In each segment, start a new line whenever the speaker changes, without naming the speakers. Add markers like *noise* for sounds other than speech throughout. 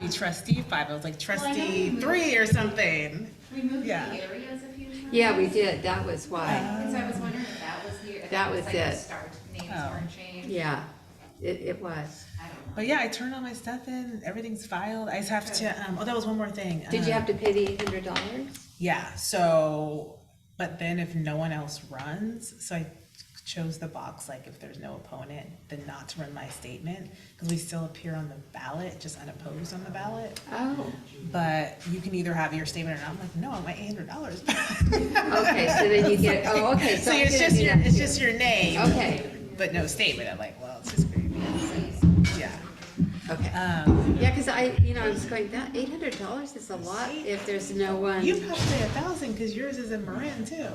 be trustee five, I was like trustee three or something.
We moved the
Yeah.
areas a few times.
Yeah, we did, that was why,
And so I was wondering if that was the, if
That
that was
was
like the
it.
start, names
Oh.
weren't changed.
yeah, it, it was.
I don't know.
But yeah, I turned all my stuff in, everything's filed, I just have to, um, oh, that was one more thing.
Did
Um,
you have to pay the eight hundred dollars?
Yeah, so, but then if no one else runs, so I chose the box, like if there's no opponent, then not to run my statement, because we still appear on the ballot, just unopposed on the ballot.
Oh,
But you can either have your statement or not, I'm like, no, I want eight hundred dollars. *laughs*
okay, so then you get, oh, okay, *laughs* so
So
I'm
it's
gonna
just
do
your,
that
it's
too.
just your name,
Okay,
but no statement, I'm like, well, it's just gonna be, yeah.
okay.
Um,
Yeah, cause I, you know, I was going, that eight hundred dollars is a lot if there's no one.
you probably a thousand, because yours is in Marin too.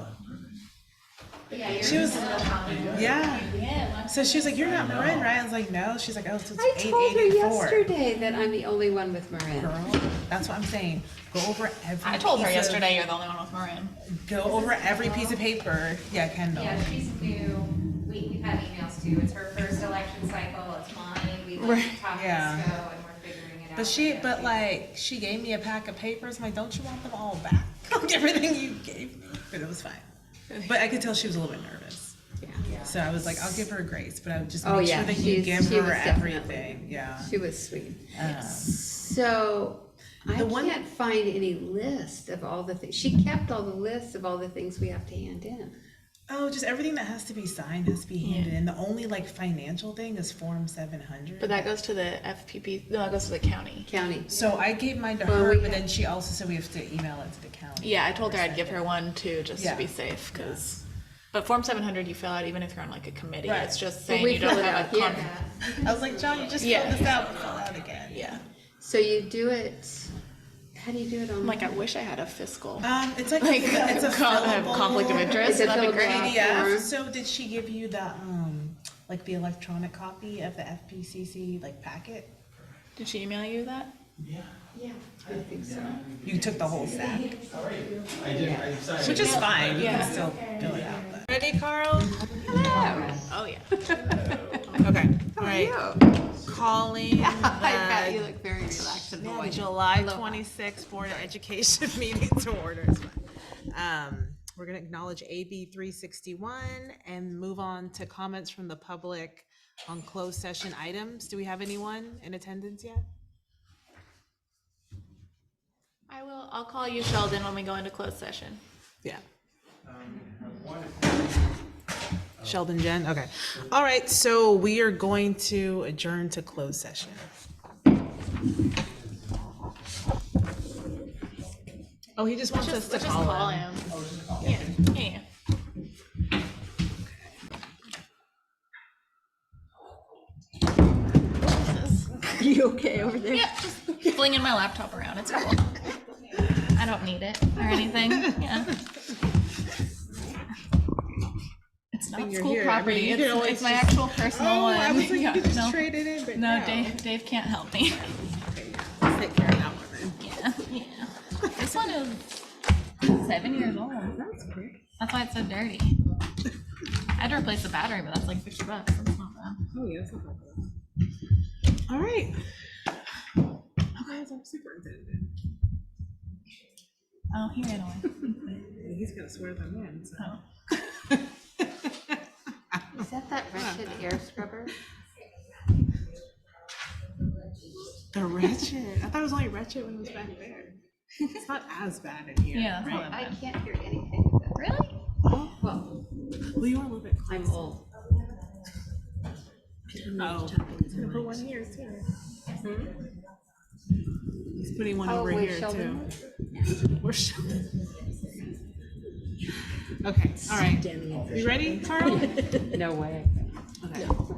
Yeah, yours
She was-
is a little common.
Yeah,
Yeah.
so she was like, you're not Marin, right? I was like, no, she's like, oh, so
I
it's eight
told her
eighty-four.
yesterday that I'm the only one with Marin.
girl. That's what I'm saying. Go over every.
I told her
piece of-
yesterday you're the only one with Marin.
Go over every piece of paper. Yeah, Kendall.
Yeah, she's new. We, we've had emails too. It's her first election cycle. It's mine. We like
Right.
talk
Yeah.
this go and we're figuring it out.
But she,
Yeah,
but like, she gave me a pack of papers. I'm like, don't you want them all back? *laughs* Everything you gave me. But it was fine. But I could tell she was a little bit nervous.
Yeah.
So I was like, I'll give her grace, but I would just make
Oh,
sure
yeah,
that you
she's-
give
she
her
was definitely-
everything. Yeah.
She was sweet.
Um,
So I
The one-
can't find any list of all the things, she kept all the lists of all the things we have to hand in.
oh, just everything that has to be signed has to be handed in. The only like financial thing is Form 700.
But that goes to the FPP. No, that goes to the county.
County,
so I gave mine to
Well,
her,
we
but
have-
then she also said we have to email it to the county.
Yeah, I told her I'd give her one too, just
Yeah.
to be safe, because. But Form 700 you fill out even if you're on like a committee.
Right.
It's just
Well,
saying
we
you don't
fill it
have
out
a
here.
con-
I was like, John, you just
Yeah.
filled this out, fill it out again.
Yeah.
so you do it, how do you do it on?
I'm like, I wish I had a fiscal.
Um, it's like,
Like,
it's a
*laughs* con- have
fillable
conflict of interest.
It's a
That'd be
fillable
great.
out.
PDF.
form.
So did she give you the um, like the electronic copy of the FPCC like packet?
Did she email you that?
Yeah, I think so.
You took the whole stack,
I did, I'm sorry.
which is fine. You
Yeah.
can still fill it out. But. Ready, Carl?
Oh yeah. okay.
All right. Calling
*laughs*
Uh,
I bet you look very relaxed and
the
boy.
July twenty-sixth Board of Education *laughs* meeting to order. It's fine. Um, We're going to acknowledge AB three sixty-one and move on to comments from the public on closed session items. Do we have anyone in attendance yet?
I will. I'll call you Sheldon when we go into closed session.
Yeah. Uh, Sheldon, Jen, okay. All right, so we are going to adjourn to closed session. Oh, he just wants us
Just,
to
let's Oh, just call
call him.
him. Yeah. Yeah.
*laughs*
You okay over there?
Yeah, just flinging my laptop around. It's cool. I don't need it or anything. Yeah. It's not
you're
school
here. I mean,
property.
you could
it's,
always
it's my
just-
actual personal
Oh,
one.
I was like, you
Yeah,
could just
no,
trade it in, but
no,
no.
Dave. Dave can't help me.
Take care of that one then.
Yeah, yeah. This one is seven years old. That's quick. That's why it's so dirty. I had to replace the battery, but that's like fifty bucks. That's not bad.
Oh, All right. Oh, guys, I'm super excited.
Oh, he ran away.
He's gonna swear by mine, so.
Oh.
Is that that wretched air scrubber?
The wretched, I thought it was only wretched when it was back there. It's not as bad in here.
Yeah, that's
right?
not that
I
bad.
can't hear anything with that.
Really?
Well,
Well, you are a little bit
I'm old.
Oh. Put one here too. He's putting one
Oh,
over
wait,
here too.
Sheldon?
We're Sheldon.
*laughs*
Okay, all right. You ready, Carl?
No way.
Okay.